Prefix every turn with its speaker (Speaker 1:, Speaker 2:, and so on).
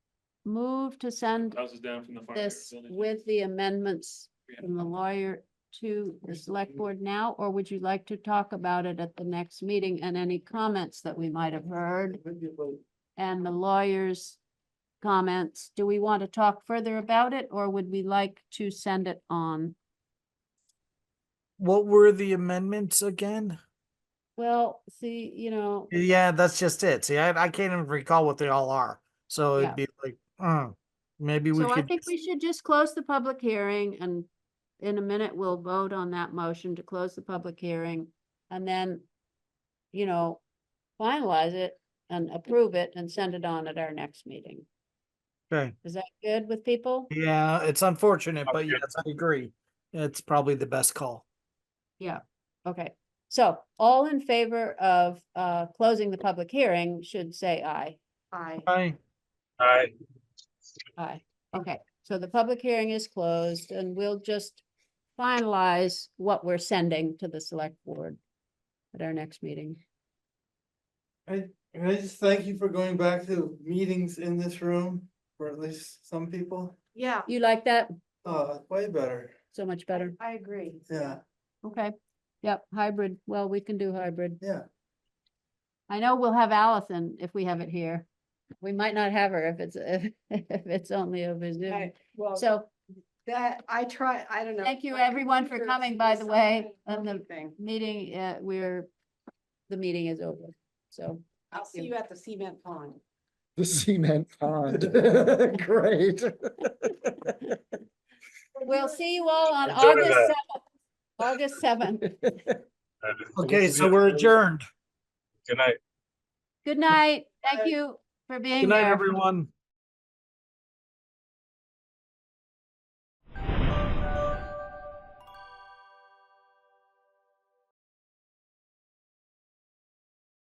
Speaker 1: move to send
Speaker 2: houses down from the fire.
Speaker 1: this
Speaker 2: building.
Speaker 1: with the amendments
Speaker 2: We have-
Speaker 1: from the lawyer to the select board now, or would you like to talk about it at the next meeting and any comments that we might have heard? And the lawyer's comments, do we want to talk further about it, or would we like to send it on?
Speaker 3: What were the amendments again?
Speaker 1: Well, see, you know,
Speaker 3: Yeah, that's just it. See, I, I can't even recall what they all are. So
Speaker 1: Yeah.
Speaker 3: it'd be like, mm, maybe we
Speaker 1: so I
Speaker 3: could.
Speaker 1: think
Speaker 3: just-
Speaker 1: we should just close the public hearing and in a minute, we'll vote on that motion to close the public hearing and then, you know, finalize it and approve it and send it on at our next meeting.
Speaker 3: Okay.
Speaker 1: Is that good with people?
Speaker 3: Yeah, it's unfortunate, but
Speaker 2: Okay.
Speaker 3: yes, I agree. It's probably the best call.
Speaker 1: Okay, so all in favor of uh closing the public hearing should say aye. Aye.
Speaker 3: Aye.
Speaker 2: Aye.
Speaker 1: Aye. Okay, so the public hearing is closed and we'll just finalize what we're sending to the select board at our next meeting.
Speaker 4: I, can I just thank you for going back to meetings in this room, for at least some people,
Speaker 5: Yeah,
Speaker 1: You like that?
Speaker 4: uh, way better,
Speaker 1: So much better.
Speaker 5: I agree.
Speaker 4: yeah,
Speaker 1: Okay. Yep, hybrid. Well, we can do hybrid.
Speaker 4: yeah.
Speaker 1: I know we'll have Allison if we have it here. We might not have her if it's, if it's only over Zoom.
Speaker 5: I- Well,
Speaker 1: So
Speaker 5: that, I try, I don't know.
Speaker 1: Thank you,
Speaker 5: My
Speaker 1: everyone, for
Speaker 5: computer
Speaker 1: coming, by the
Speaker 5: is
Speaker 1: way,
Speaker 5: not
Speaker 1: on the-
Speaker 5: anything.
Speaker 1: meeting, uh, we're, the meeting is over. So
Speaker 5: I'll see you at the cement pond.
Speaker 6: The cement pond. Great.
Speaker 1: we'll see you all on
Speaker 2: Enjoy
Speaker 1: August
Speaker 2: that.
Speaker 1: seventh. August seventh.
Speaker 3: Okay, so we're adjourned.
Speaker 2: Good night.
Speaker 1: Good night. Thank
Speaker 5: Bye.
Speaker 1: you for being
Speaker 3: Good night,
Speaker 1: here.
Speaker 3: everyone.